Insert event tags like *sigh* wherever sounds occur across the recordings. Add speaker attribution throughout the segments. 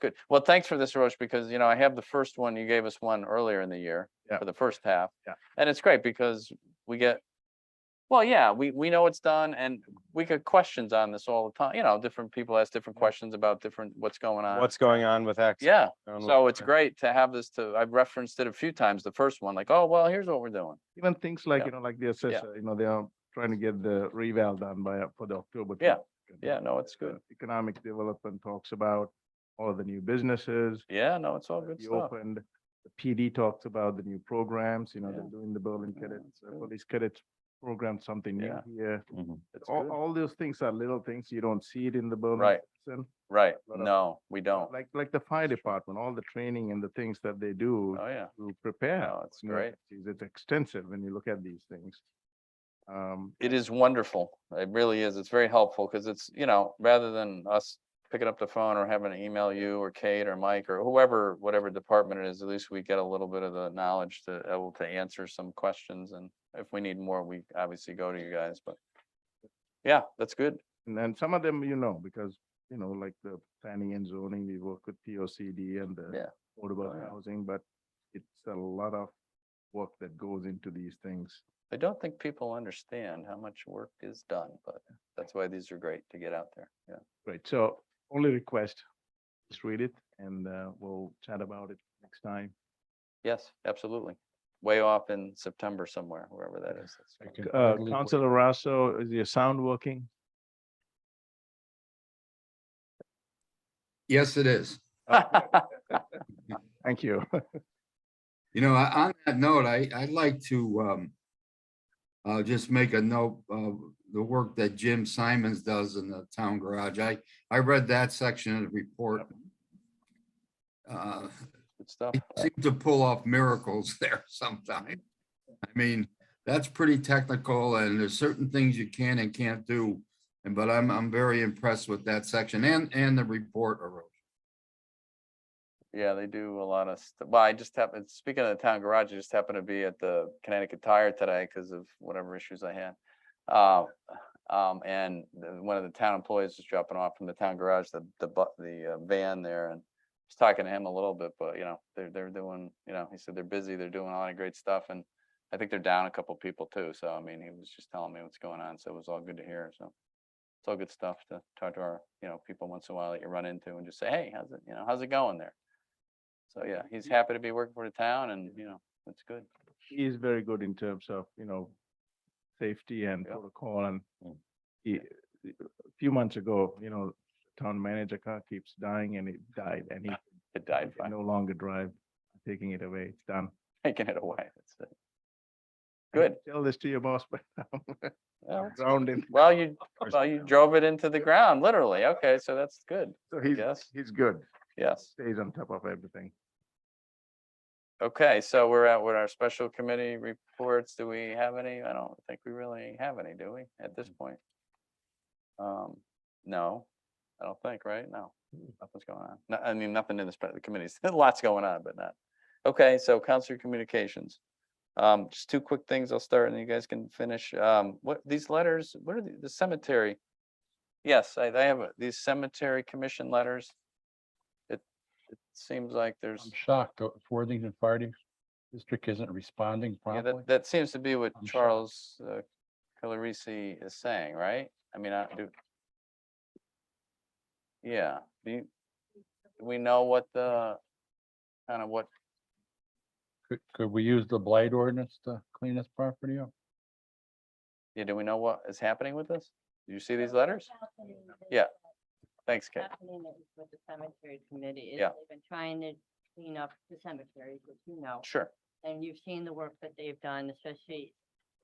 Speaker 1: Good. Well, thanks for this, Roche, because, you know, I have the first one. You gave us one earlier in the year
Speaker 2: Yeah.
Speaker 1: for the first half.
Speaker 2: Yeah.
Speaker 1: And it's great because we get, well, yeah, we, we know it's done and we get questions on this all the time. You know, different people ask different questions about different, what's going on.
Speaker 2: What's going on with X?
Speaker 1: Uh, Yeah.
Speaker 2: going on with
Speaker 1: So it's
Speaker 2: Y?
Speaker 1: great to have this to, I've referenced it a few times, the first one, like, oh, well, here's what we're doing.
Speaker 3: Even things like,
Speaker 1: Yeah.
Speaker 3: you know, like the assessor, you know, they are trying to get the reval done by, uh, for the October.
Speaker 1: Yeah.
Speaker 3: talk, and
Speaker 1: Yeah, no, it's
Speaker 3: the
Speaker 1: good.
Speaker 3: Economic development talks about all the new businesses.
Speaker 1: Yeah, no, it's all good
Speaker 3: You
Speaker 1: stuff.
Speaker 3: opened, the PD talks about the new programs, you know,
Speaker 1: Yeah.
Speaker 3: they're doing the Berlin
Speaker 1: Yeah,
Speaker 3: cadets, uh,
Speaker 1: good.
Speaker 3: police cadets program, something new
Speaker 1: Yeah.
Speaker 3: here.
Speaker 1: It's
Speaker 3: All,
Speaker 1: good.
Speaker 3: all those things are little things. You don't see it in the Berlin.
Speaker 1: Right.
Speaker 3: citizen.
Speaker 1: Right,
Speaker 3: lot of-
Speaker 1: no, we don't.
Speaker 3: Like, like the fire department, all the training and the things that they do
Speaker 1: Oh, yeah,
Speaker 3: to prepare.
Speaker 1: No, it's
Speaker 3: for new
Speaker 1: great.
Speaker 3: emergencies. It's extensive when you look at these things. Um,
Speaker 1: it is wonderful. It really is. It's very helpful because it's, you know, rather than us picking up the phone or having to email you or Kate or Mike or whoever, whatever department it is, at least we get a little bit of the knowledge to able to answer some questions. And if we need more, we obviously go to you guys, but yeah, that's good.
Speaker 3: and then some of them, you know, because, you know, like the planning and zoning, we work with P O C D and
Speaker 1: Yeah.
Speaker 3: the
Speaker 1: Oh,
Speaker 3: affordable
Speaker 1: yeah.
Speaker 3: housing, but it's a lot of work that goes into these things.
Speaker 1: I don't think people understand how much work is done, but that's why these are great to get out there. Yeah.
Speaker 3: Right, so only request, just read it and uh, we'll chat about it next time.
Speaker 1: Yes, absolutely. Way off in September somewhere, wherever that is. that's fine.
Speaker 3: Uh, Counselor Russo, is your sound working?
Speaker 4: Yes, it is.
Speaker 3: Okay, Thank you.
Speaker 4: You know, I- on that note, I, I'd like to, um, uh, just make a note of the work that Jim Simons does in the town garage. I, I read that section of the report. Uh,
Speaker 1: *laughs* Good stuff.
Speaker 4: he seemed to pull off miracles *laughs* there sometimes. I mean, that's pretty technical and there's certain things you can and can't do. And, but I'm, I'm very impressed with that section and, and the report. Arun.
Speaker 1: Yeah, they do a lot of, st- well, I just happened, speaking of the town garage, I just happened to be at the Connecticut Tire today because of whatever issues I had. Uh, Um, and the- one of the town employees was dropping off from the town garage, the, the, bu- the uh, van there and I was talking to him a little bit, but you know, they're, they're doing, you know, he said they're busy, they're doing a lot of great stuff and I think they're down a couple people too. So I mean, he was just telling me what's going on. So it was all good to hear. So it's all good stuff to talk to our, you know, people once in a while that you run into and just say, hey, how's it, you know, how's it going there? So yeah, he's happy to be working for the town and, you know, that's good.
Speaker 3: he is very good in terms of, you know, safety and
Speaker 1: Yeah.
Speaker 3: protocol and
Speaker 1: Mm.
Speaker 3: he, a few months ago, you know, town manager car keeps dying and it died and he
Speaker 1: It *laughs* died
Speaker 3: can
Speaker 1: *laughs* by
Speaker 3: no longer drive, taking it away, it's done.
Speaker 1: taking it away. That's it.
Speaker 3: I didn't
Speaker 1: Good.
Speaker 3: Tell this to your boss, *laughs* but
Speaker 1: Well, that's-
Speaker 3: grounded,
Speaker 1: Well, you, *laughs*
Speaker 3: course
Speaker 1: well,
Speaker 3: they *laughs*
Speaker 1: you
Speaker 3: don't.
Speaker 1: drove it into the ground, literally. Okay, so that's good.
Speaker 3: so he's,
Speaker 1: Yes,
Speaker 3: he's good,
Speaker 1: yes.
Speaker 3: stays on top of everything.
Speaker 1: Okay, so we're at with our special committee reports. Do we have any? I don't think we really have any, do we, at this point? Um, no, I don't think, right? No, nothing's going on. No, I mean, nothing in the spe- the committees. *laughs* Lots going on, but not. Okay, so council communications. Um, just two quick things. I'll start and you guys can finish. Um, what, these letters, what are the- the cemetery? Yes, I, I have a- these cemetery commission letters. It, it seems like there's.
Speaker 5: I'm shocked that Worthington Fire Dis- District isn't responding
Speaker 1: Yeah,
Speaker 5: promptly.
Speaker 1: that, that seems to be what
Speaker 5: I'm sure.
Speaker 1: Charles uh, Calarisi is saying, right? I mean, I do. Yeah, do you, do we know what the, kind of what,
Speaker 5: Could, could we use the blight ordinance to clean this property up?
Speaker 1: yeah, do we know what is happening with this? Do you see these letters? Yeah. Thanks, Kate.
Speaker 6: Happening is with the cemetery committee. is
Speaker 1: Yeah.
Speaker 6: They've been trying to clean up the cemeteries, which you know,
Speaker 1: Sure,
Speaker 6: and you've seen the work that they've done, especially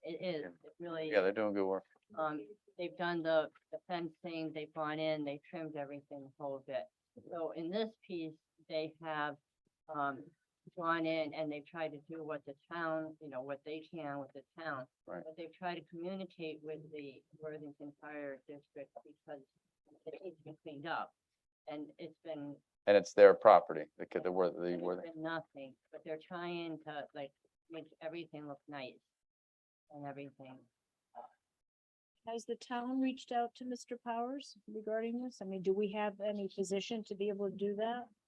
Speaker 6: it is, it really,
Speaker 1: yeah, they're doing good work.
Speaker 6: um, they've done the the fencing, they've gone in, they trimmed everything a whole bit. So in this piece, they have, um, gone in and they've tried to do what the town, you know, what they can with the town.
Speaker 1: Right.
Speaker 6: But they've tried to communicate with the Worthington Fire District because it needs to be cleaned up. And it's been,
Speaker 1: And it's their property, the, ki- the, wor- the,
Speaker 6: and
Speaker 1: wor-
Speaker 6: it's been nothing, but they're trying to like make everything look nice and everything.
Speaker 7: Has the town reached out to Mr. Powers regarding this? I mean, do we have any position to be able to do that?